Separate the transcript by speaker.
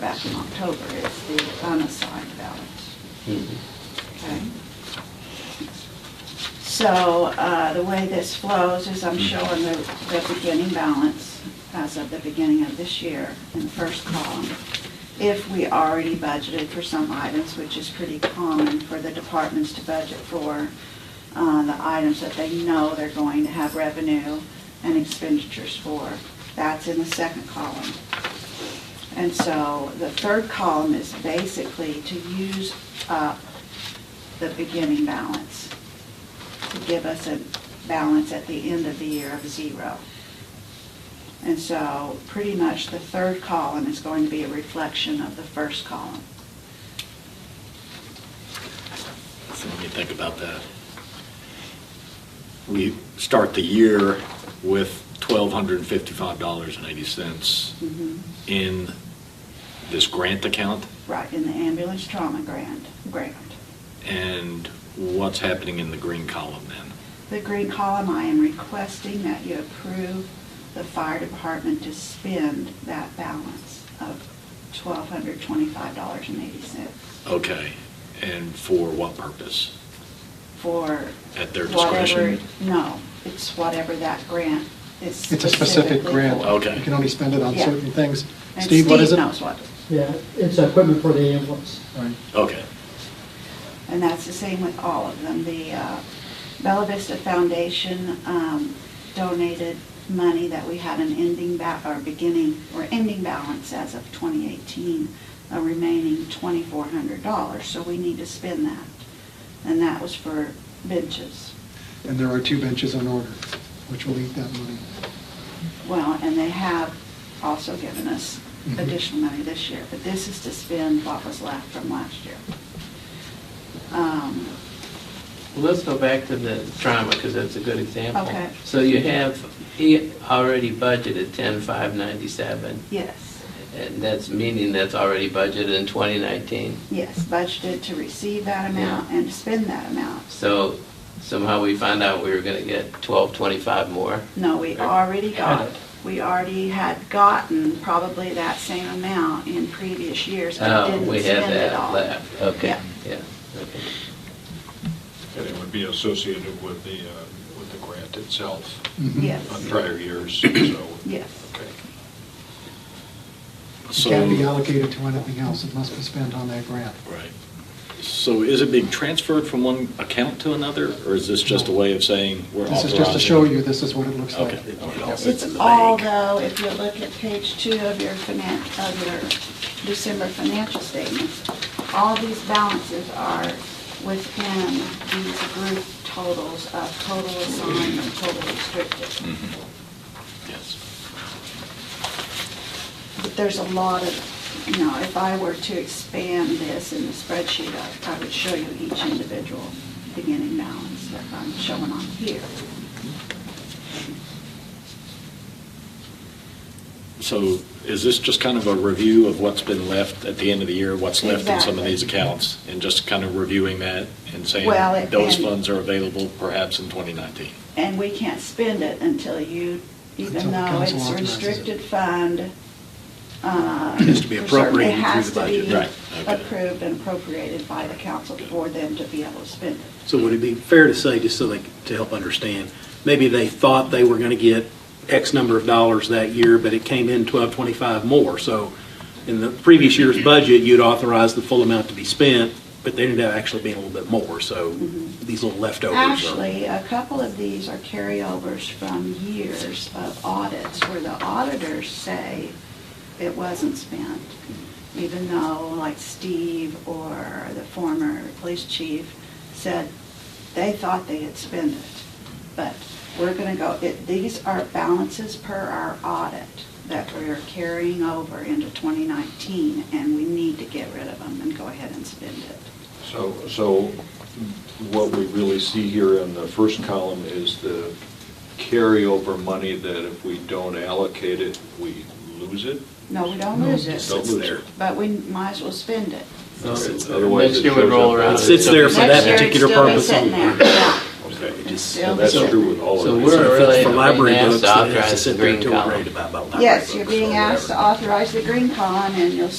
Speaker 1: back in October, it's the unassigned balance. Okay? So uh, the way this flows is I'm showing the, the beginning balance as of the beginning of this year in the first column. If we already budgeted for some items, which is pretty common for the departments to budget for, uh, the items that they know they're going to have revenue and expenditures for, that's in the second column. And so the third column is basically to use up the beginning balance, to give us a balance at the end of the year of zero. And so pretty much the third column is going to be a reflection of the first column.
Speaker 2: So Let me think about that. We start the year with $1,255.80
Speaker 1: Mhm.
Speaker 2: in this grant account,
Speaker 1: Right, in the ambulance trauma grant, grant.
Speaker 2: and what's happening in the green column then?
Speaker 1: The green column, I am requesting that you approve the fire department to spend that balance of twelve hundred twenty-five dollars and eighty cents.
Speaker 2: Okay, and for what purpose?
Speaker 1: for.
Speaker 2: At their
Speaker 1: whatever-
Speaker 2: discretion?
Speaker 1: No, it's whatever that grant is.
Speaker 3: It's a specific
Speaker 1: specifically
Speaker 3: grant.
Speaker 1: for.
Speaker 2: Okay.
Speaker 3: You can only spend it on
Speaker 1: Yeah.
Speaker 3: certain things.
Speaker 1: And
Speaker 3: Steve, what is it?
Speaker 1: knows what.
Speaker 4: Yeah, it's equipment for the ambulance.
Speaker 3: Right.
Speaker 2: Okay,
Speaker 1: And that's the same with all of them. The uh, Bella Vista Foundation um, donated money that we had an ending, ba- or beginning, or ending balance as of 2018, a remaining $2,400, so we need to spend that. And that was for benches.
Speaker 3: And there are two benches on order, which will eat that money.
Speaker 1: Well, and they have also given us
Speaker 3: Mhm.
Speaker 1: additional money this year, but this is to spend what was left from last year. Um,
Speaker 5: Well, let's go back to the trauma, because that's a good example.
Speaker 1: Okay.
Speaker 5: So you have, he already budgeted ten five ninety-seven,
Speaker 1: Yes,
Speaker 5: and that's meaning that's already budgeted in twenty nineteen.
Speaker 1: yes, budgeted to receive that amount and to spend that amount.
Speaker 5: So somehow we found out we were gonna get twelve twenty-five more.
Speaker 1: No, we already got, we already had gotten probably that same amount in previous years, but
Speaker 5: Oh,
Speaker 1: didn't
Speaker 5: we had
Speaker 1: spend it
Speaker 5: that
Speaker 1: all.
Speaker 5: left, okay,
Speaker 1: Yeah.
Speaker 5: yeah, okay.
Speaker 6: And it would be associated with the, uh, with the grant itself
Speaker 3: Mhm.
Speaker 6: on
Speaker 1: Yes,
Speaker 6: prior years, so,
Speaker 1: yes.
Speaker 6: okay.
Speaker 3: It
Speaker 2: so.
Speaker 3: can't be allocated to anything else. It must be spent on that grant.
Speaker 2: Right. So is it being transferred from one account to another, or is this just a way of saying we're
Speaker 3: This
Speaker 2: authorizing?
Speaker 3: is just to show you, this is what it looks like.
Speaker 2: Okay.
Speaker 1: It's all, though, if you look at page two of your finan, of your December financial statements, all these balances are within these group totals of total assigned and total restricted.
Speaker 5: Mm-hmm.
Speaker 2: Yes.
Speaker 1: But there's a lot of, you know, if I were to expand this in the spreadsheet, I- I would show you each individual beginning balance that I'm showing on here.
Speaker 2: So is this just kind of a review of what's been left at the end of the year, what's left in some of
Speaker 1: Exactly.
Speaker 2: these accounts? And just kind of reviewing that and
Speaker 1: Well, it-
Speaker 2: saying those
Speaker 1: and-
Speaker 2: funds are available perhaps in 2019?
Speaker 1: And we can't spend it until you, even
Speaker 3: Until the
Speaker 1: though
Speaker 3: council
Speaker 1: it's a
Speaker 3: authorizes it.
Speaker 1: restricted fund. uh,
Speaker 7: It has to be
Speaker 1: for certain-
Speaker 7: appropriated through the budget.
Speaker 1: It
Speaker 2: Right,
Speaker 1: has to be
Speaker 2: okay.
Speaker 1: approved and appropriated by the council for them to be able to spend it.
Speaker 7: So would it be fair to say, just so they, to help understand, maybe they thought they were going to get X number of dollars that year, but it came in twelve twenty-five more? So in the previous year's budget, you'd authorize the full amount to be spent, but they ended up actually being a little bit more, so these little leftovers are.
Speaker 1: Mm-hmm. Actually, a couple of these are carryovers from years of audits where the auditors say it wasn't spent, even though like Steve or the former police chief said they thought they had spent it. But we're going to go, it- these are balances per our audit that we're carrying over into 2019, and we need to get rid of them and go ahead and spend it.
Speaker 6: So, so what we really see here in the first column is the carryover money that if we don't allocate it, we lose it?
Speaker 1: No, we don't lose
Speaker 7: It
Speaker 1: it.
Speaker 7: sits there.
Speaker 1: But we might as well spend it.
Speaker 5: So
Speaker 7: It's-
Speaker 6: otherwise
Speaker 5: Next
Speaker 6: it
Speaker 5: year would
Speaker 6: shows
Speaker 5: roll
Speaker 6: up.
Speaker 5: around.
Speaker 7: It sits there for
Speaker 1: Next
Speaker 7: that
Speaker 1: year, it'd
Speaker 7: particular
Speaker 1: still be
Speaker 7: purpose.
Speaker 1: sitting there, yeah.
Speaker 6: Okay,
Speaker 7: Just-
Speaker 1: Still
Speaker 6: and that's
Speaker 1: be-
Speaker 6: true with all
Speaker 5: So
Speaker 6: of
Speaker 5: we're-
Speaker 6: these.
Speaker 7: So if it's
Speaker 5: really
Speaker 7: For
Speaker 5: being
Speaker 7: library
Speaker 5: asked
Speaker 7: books,
Speaker 5: to
Speaker 7: it has to
Speaker 5: authorize
Speaker 7: sit
Speaker 5: the
Speaker 7: there
Speaker 5: green
Speaker 7: until we're
Speaker 5: column.
Speaker 7: ready to buy about library
Speaker 1: Yes, you're
Speaker 7: books or
Speaker 1: being asked
Speaker 7: whatever.
Speaker 1: to authorize the green column, and you'll